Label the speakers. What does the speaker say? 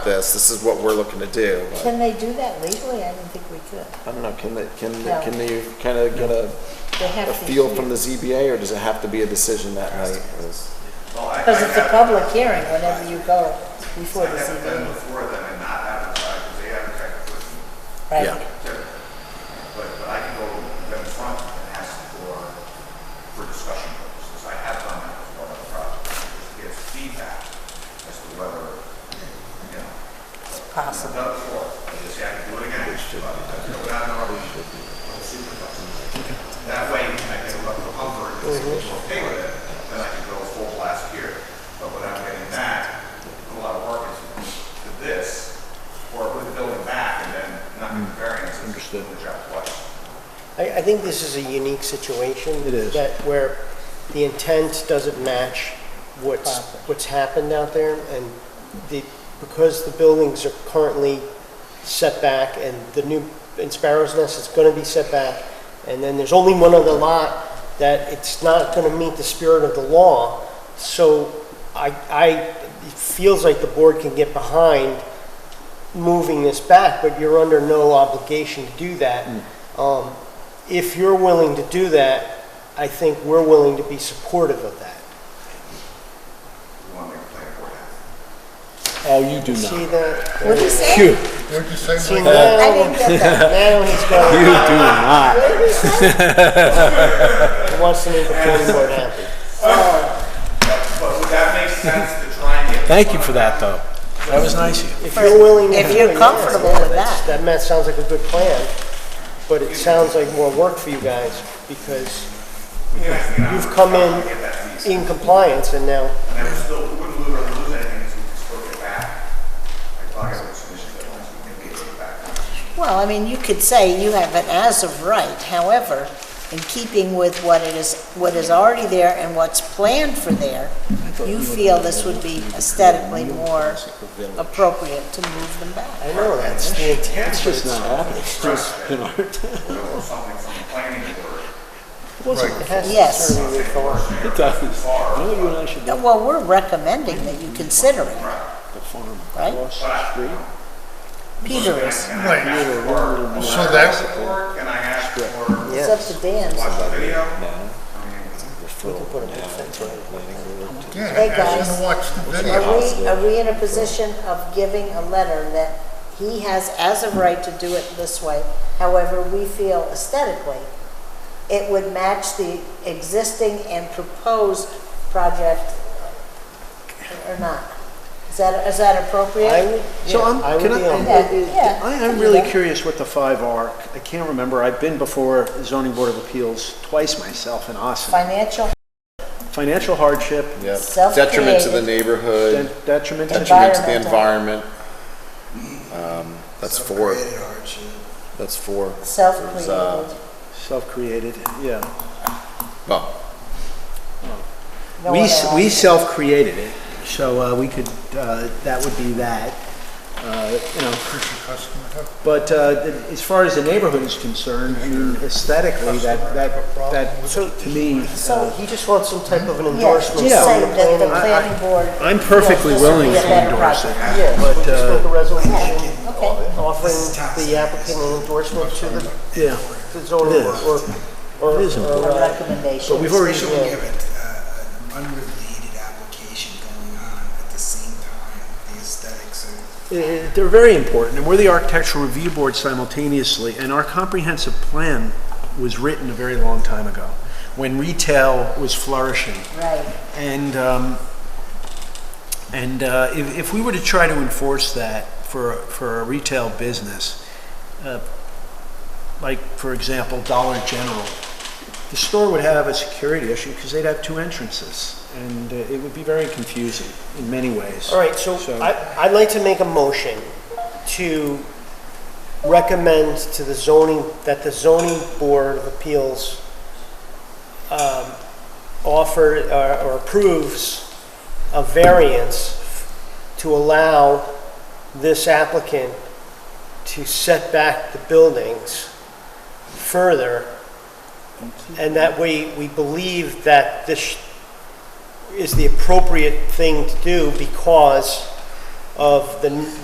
Speaker 1: this, this is what we're looking to do.
Speaker 2: Can they do that legally? I didn't think we could.
Speaker 1: I don't know, can they, can,
Speaker 2: No.
Speaker 1: can you kind of get a,
Speaker 2: They have
Speaker 1: a
Speaker 2: to
Speaker 1: feel
Speaker 2: hear.
Speaker 1: from the ZBA, or does it have to be a decision that night?
Speaker 3: Well, I,
Speaker 2: Because
Speaker 3: I
Speaker 2: it's a
Speaker 3: have-
Speaker 2: public hearing whenever you go before
Speaker 3: I
Speaker 2: the
Speaker 3: haven't been
Speaker 2: ZBA,
Speaker 3: before them and not advertised, because they advertise with me,
Speaker 1: Yeah.
Speaker 2: right?
Speaker 3: but, but I can go in front and ask for, for discussion purposes. I have done that before on projects, just to get feedback as to whether, you know,
Speaker 2: It's possible.
Speaker 3: done before. I just say, I can do it again, but I do it on our, on the supervisor. That way, I can look for comfort, if
Speaker 4: Mm-hmm.
Speaker 3: it's okay with it, then I can go full blast here. But without getting that, a lot of work is to this, or with the building back, and then not
Speaker 4: Mm.
Speaker 3: the variance, and just doing the job twice.
Speaker 5: I, I think this is a unique situation.
Speaker 4: It is.
Speaker 5: That where the intent doesn't match what's, what's happened out there, and the, because the buildings are currently set back, and the new, in Sparrow's Nest, it's gonna be set back, and then there's only one other lot, that it's not gonna meet the spirit of the law, so I, I, it feels like the board can get behind moving this back, but you're under no obligation to do that.
Speaker 4: Mm.
Speaker 5: Um, If you're willing to do that, I think we're willing to be supportive of that.
Speaker 3: We want to make a plan for that.
Speaker 4: Oh, you do
Speaker 5: See
Speaker 4: not.
Speaker 5: that?
Speaker 2: What'd you say?
Speaker 4: You, you
Speaker 6: Where'd you say
Speaker 5: See,
Speaker 6: Mike?
Speaker 2: I
Speaker 5: now,
Speaker 2: didn't get that.
Speaker 5: now he's
Speaker 4: do
Speaker 5: going,
Speaker 4: not.
Speaker 5: he wants to make the planning board happy.
Speaker 3: But would that make sense to try and get?
Speaker 4: Thank you for that, though. That was nice of you.
Speaker 5: If you're willing to
Speaker 2: If
Speaker 5: do
Speaker 2: you're
Speaker 5: it, yeah,
Speaker 2: comfortable
Speaker 5: yeah,
Speaker 2: with
Speaker 5: that's-
Speaker 2: that.
Speaker 5: That, ma- sounds like a good plan, but it sounds like more work for you guys, because you've come in in compliance, and now
Speaker 3: And then we still, we wouldn't lose, lose anything, so we could still get back. I thought I was submission that once we can get it back.
Speaker 2: Well, I mean, you could say you have an as of right, however, in keeping with what it is, what is already there and what's planned for there, you feel this would be aesthetically more appropriate to move them back.
Speaker 5: I know that's the intent.
Speaker 4: It's just not happening. It's just been our
Speaker 3: Or something from the planning board.
Speaker 5: It has to
Speaker 2: Yes.
Speaker 5: serve your authority.
Speaker 4: It does. You know, you and I should
Speaker 2: No,
Speaker 4: go
Speaker 2: Well, we're recommending that you consider it,
Speaker 4: to the farm
Speaker 2: Right.
Speaker 4: across the street.
Speaker 2: Peter is.
Speaker 6: Right,
Speaker 4: Little, little, little
Speaker 6: so that,
Speaker 3: Or can I ask for a
Speaker 2: It's up to Dan.
Speaker 3: video?
Speaker 5: Put a big fence around it.
Speaker 6: yeah,
Speaker 2: Hey,
Speaker 6: ask
Speaker 2: guys.
Speaker 6: him to watch the
Speaker 2: Are
Speaker 6: video.
Speaker 2: we, are we in a position of giving a letter that he has as a right to do it this way? However, we feel aesthetically, it would match the existing and proposed project or not? Is that, is that
Speaker 5: I
Speaker 2: appropriate?
Speaker 5: would,
Speaker 4: So
Speaker 5: yeah,
Speaker 4: I'm,
Speaker 5: I would
Speaker 4: can
Speaker 5: be on
Speaker 2: Yeah,
Speaker 4: I, I-
Speaker 2: yeah,
Speaker 4: I,
Speaker 2: can
Speaker 4: I'm
Speaker 2: do
Speaker 4: really
Speaker 2: that.
Speaker 4: curious what the five are. I can't remember. I've been before zoning board of appeals twice myself in Austin.
Speaker 2: Financial
Speaker 4: Financial hardship,
Speaker 1: Yeah.
Speaker 2: Self-created.
Speaker 1: Detriment to the neighborhood,
Speaker 4: de- detriment to
Speaker 1: detriment to the
Speaker 2: Environmental.
Speaker 1: environment. Um, That's four. That's four.
Speaker 4: uh,
Speaker 2: self-created,
Speaker 4: self-created, yeah.
Speaker 1: Well,
Speaker 2: no one
Speaker 4: We, s-
Speaker 2: else.
Speaker 4: we self-created it, so uh, we could, uh, that would be that, uh, you know. But uh, th- as far as the neighborhood is concerned, I mean, aesthetically, that, that, that, to me,
Speaker 5: So he just wants some type of an
Speaker 2: Yeah, just
Speaker 5: endorsement.
Speaker 2: say
Speaker 4: Yeah.
Speaker 5: from the
Speaker 2: that the
Speaker 5: planning-
Speaker 4: I-
Speaker 2: planning board.
Speaker 4: I'm perfectly
Speaker 2: feels this would
Speaker 4: willing
Speaker 2: be a
Speaker 4: to
Speaker 2: better
Speaker 4: endorse it.
Speaker 2: project.
Speaker 5: Yeah,
Speaker 4: But,
Speaker 5: we'll just
Speaker 4: uh,
Speaker 5: make a resolution
Speaker 2: Okay,
Speaker 5: offering the applicant an endorsement to the
Speaker 4: yeah.
Speaker 5: the zoning
Speaker 4: It
Speaker 5: board
Speaker 4: is.
Speaker 5: or, or,
Speaker 4: It is important.
Speaker 5: or,
Speaker 2: a
Speaker 5: uh,
Speaker 2: recommendation.
Speaker 4: We've already,
Speaker 7: Especially when you have a- a- uh, an unrelated application going on at the same time, the aesthetics are
Speaker 4: Uh, They're very important, and we're the architectural review board simultaneously, and our comprehensive plan was written a very long time ago, when retail was flourishing.
Speaker 2: Right.
Speaker 4: And, um, and uh, if, if we were to try to enforce that for, for a retail business, uh, like, for example, Dollar General, the store would have a security issue because they'd have two entrances, and uh, it would be very confusing in many ways.
Speaker 5: all right, so I, I'd like to make a motion to recommend to the zoning, that the zoning board of appeals um, offer uh, or or approves a variance to allow this applicant to set back the buildings further. And that we, we believe that this is the appropriate thing to do because of the